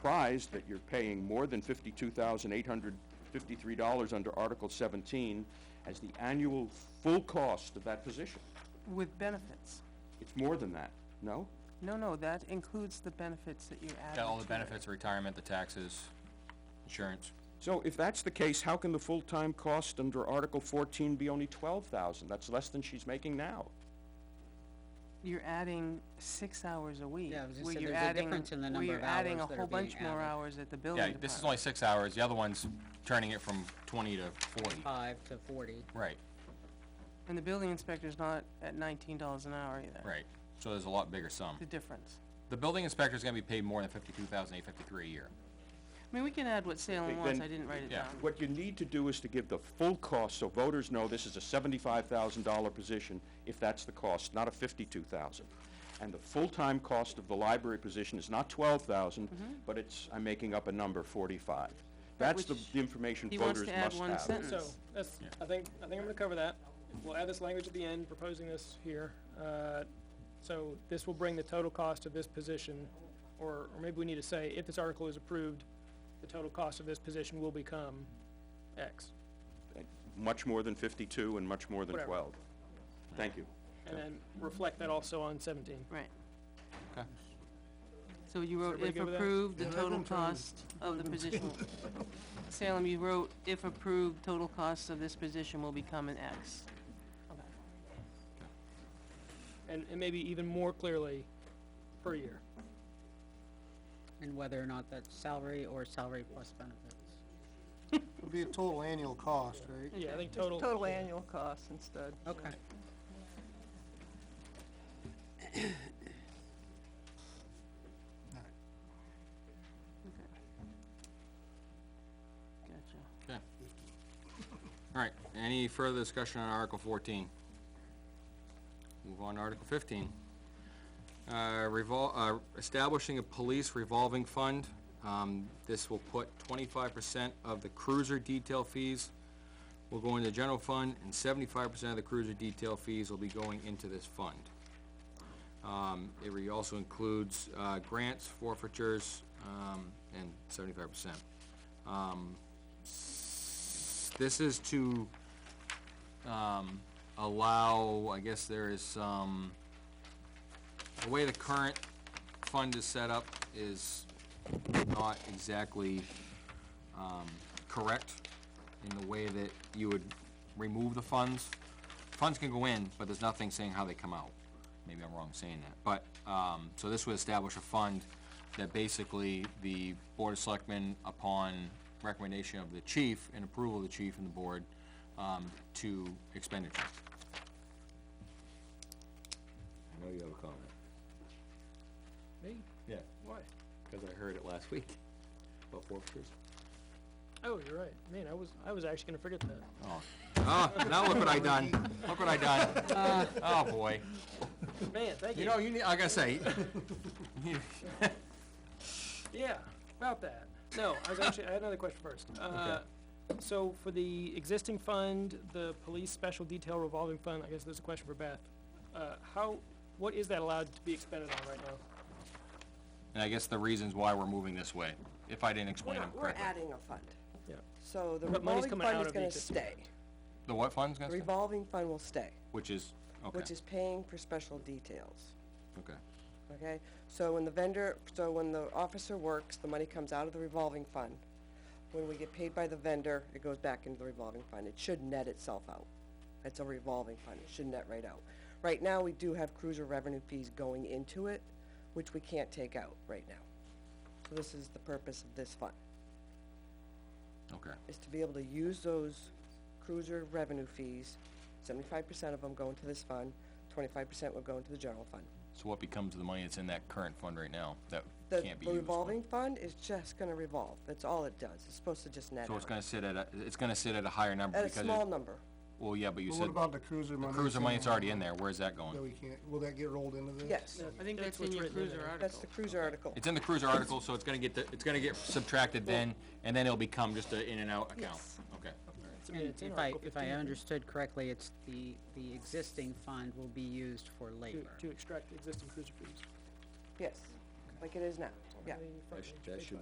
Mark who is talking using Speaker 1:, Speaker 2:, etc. Speaker 1: surprised that you're paying more than fifty-two thousand eight hundred fifty-three dollars under Article seventeen as the annual full cost of that position.
Speaker 2: With benefits.
Speaker 1: It's more than that, no?
Speaker 2: No, no, that includes the benefits that you add.
Speaker 3: Got all the benefits, retirement, the taxes, insurance.
Speaker 1: So if that's the case, how can the full-time cost under Article fourteen be only twelve thousand? That's less than she's making now.
Speaker 2: You're adding six hours a week.
Speaker 4: Yeah, I was gonna
Speaker 2: where
Speaker 4: say
Speaker 2: you're
Speaker 4: there's a
Speaker 2: adding-
Speaker 4: difference in the
Speaker 2: where
Speaker 4: number
Speaker 2: you're
Speaker 4: of
Speaker 2: adding
Speaker 4: hours
Speaker 2: a
Speaker 4: that
Speaker 2: whole
Speaker 4: are being
Speaker 2: bunch more
Speaker 4: added.
Speaker 2: hours at the building
Speaker 3: Yeah,
Speaker 2: department.
Speaker 3: this is only six hours, the other one's turning it from twenty to forty.
Speaker 4: five to forty.
Speaker 3: Right,
Speaker 2: And the building inspector's not at nineteen dollars an hour either.
Speaker 3: right. So there's a lot bigger sum.
Speaker 2: The difference.
Speaker 3: The building inspector's gonna be paid more than fifty-two thousand eight fifty-three a year.
Speaker 2: I mean, we can add what Salem
Speaker 1: Okay,
Speaker 2: wants,
Speaker 1: then-
Speaker 2: I didn't write it
Speaker 3: Yeah.
Speaker 2: down.
Speaker 1: What you need to do is to give the full cost, so voters know this is a seventy-five thousand dollar position, if that's the cost, not a fifty-two thousand. And the full-time cost of the library position is not twelve thousand,
Speaker 2: Mm-hmm.
Speaker 1: but it's, I'm making up a number, forty-five. That's the
Speaker 2: which
Speaker 1: the information
Speaker 2: he wants
Speaker 1: voters
Speaker 2: to add
Speaker 1: must
Speaker 2: one
Speaker 1: have.
Speaker 2: sentence.
Speaker 5: So, that's, I think, I think I'm gonna cover that. We'll add this language at the end, proposing this here. Uh, So this will bring the total cost of this position, or, or maybe we need to say, if this article is approved, the total cost of this position will become X.
Speaker 1: Much more than fifty-two and much more than
Speaker 5: Whatever.
Speaker 1: twelve. Thank you.
Speaker 5: And then reflect that also on seventeen.
Speaker 2: Right.
Speaker 3: Okay.
Speaker 2: So you wrote,
Speaker 5: everybody
Speaker 2: if
Speaker 5: good with that?
Speaker 2: approved, the total cost of the position. Salem, you wrote, if approved, total cost of this position will become an X.
Speaker 5: And, and maybe even more clearly, per year.
Speaker 4: And whether or not that's salary or salary plus benefits.
Speaker 6: It'll be a total annual cost, right?
Speaker 5: Yeah, I think
Speaker 7: Just
Speaker 5: total.
Speaker 7: Total annual cost instead.
Speaker 4: Okay.
Speaker 2: Gotcha.
Speaker 3: Okay. All right, any further discussion on Article fourteen? Move on to Article fifteen. Uh, revol, uh, establishing a police revolving fund. Um, this will put twenty-five percent of the cruiser detail fees will go into the general fund, and seventy-five percent of the cruiser detail fees will be going into this fund. Um, it re- also includes, uh, grants, forfeitures, um, and seventy-five percent. Um, this is to, um, allow, I guess there is some, the way the current fund is set up is not exactly, um, correct in the way that you would remove the funds. Funds can go in, but there's nothing saying how they come out. Maybe I'm wrong saying that, but, um, so this would establish a fund that basically the Board of Selectmen, upon recommendation of the chief and approval of the chief and the board, um, to expenditure. I know you have a comment.
Speaker 5: Me?
Speaker 3: Yeah,
Speaker 5: Why?
Speaker 3: because I heard it last week about forfeitures.
Speaker 5: Oh, you're right. Man, I was, I was actually gonna forget that.
Speaker 3: Oh, oh, now look what I done, look what I done. Oh, boy.
Speaker 5: Man, thank
Speaker 3: You
Speaker 5: you.
Speaker 3: know, you need, like I say, you-
Speaker 5: Yeah, about that. No, I was actually, I had another question first. Uh, So for the existing fund, the police special detail revolving fund, I guess there's a question for Beth. Uh, How, what is that allowed to be expended on right now?
Speaker 3: and I guess the reasons why we're moving this way, if I didn't
Speaker 7: We're
Speaker 3: explain them
Speaker 7: not, we're
Speaker 3: correctly.
Speaker 7: adding a fund.
Speaker 5: Yeah.
Speaker 7: So the
Speaker 5: But money's
Speaker 7: revolving
Speaker 5: coming out
Speaker 7: fund is
Speaker 5: of
Speaker 7: gonna
Speaker 5: each of-
Speaker 7: stay.
Speaker 3: The what fund's
Speaker 7: The
Speaker 3: gonna stay?
Speaker 7: revolving fund will stay,
Speaker 3: Which is, okay,
Speaker 7: which is paying for special details,
Speaker 3: okay,
Speaker 7: okay? So when the vendor, so when the officer works, the money comes out of the revolving fund. When we get paid by the vendor, it goes back into the revolving fund. It should net itself out. It's a revolving fund. It should net right out. Right now, we do have cruiser revenue fees going into it, which we can't take out right now. So this is the purpose of this fund.
Speaker 3: okay.
Speaker 7: is to be able to use those cruiser revenue fees, seventy-five percent of them go into this fund, twenty-five percent would go into the general fund.
Speaker 3: So what becomes of the money that's in that current fund right now that
Speaker 7: The
Speaker 3: can't be used?
Speaker 7: revolving fund is just gonna revolve, that's all it does, it's supposed to just net
Speaker 3: So it's
Speaker 7: out,
Speaker 3: gonna sit at a, it's gonna sit at a higher number
Speaker 7: at a
Speaker 3: because it-
Speaker 7: small number.
Speaker 3: Well, yeah, but you
Speaker 6: But
Speaker 3: said
Speaker 6: what about the cruiser
Speaker 3: the
Speaker 6: money?
Speaker 3: cruiser
Speaker 6: that's
Speaker 3: money,
Speaker 6: in
Speaker 3: it's
Speaker 6: there?
Speaker 3: already in there, where's that
Speaker 6: That
Speaker 3: going?
Speaker 6: we can't, will that get rolled into this?
Speaker 7: Yes,
Speaker 2: I think that's
Speaker 5: That's
Speaker 2: in
Speaker 5: what's
Speaker 2: your
Speaker 5: written in
Speaker 2: cruiser
Speaker 5: there.
Speaker 7: that's
Speaker 2: article.
Speaker 7: the cruiser article,
Speaker 3: It's in the cruiser article, so it's gonna get, the- it's gonna get subtracted then, and then it'll become just a in and out account, okay?
Speaker 5: It's- I mean,
Speaker 4: And
Speaker 5: it's in
Speaker 4: if I,
Speaker 5: Article
Speaker 4: if I
Speaker 5: 15,
Speaker 4: understood correctly, it's the, the existing fund will be used for
Speaker 5: To,
Speaker 4: labor.
Speaker 5: to extract the existing cruiser fees.
Speaker 7: yes, like it is now,
Speaker 8: Yeah.
Speaker 7: the front
Speaker 3: That sh-
Speaker 7: page,
Speaker 3: that
Speaker 7: page
Speaker 3: should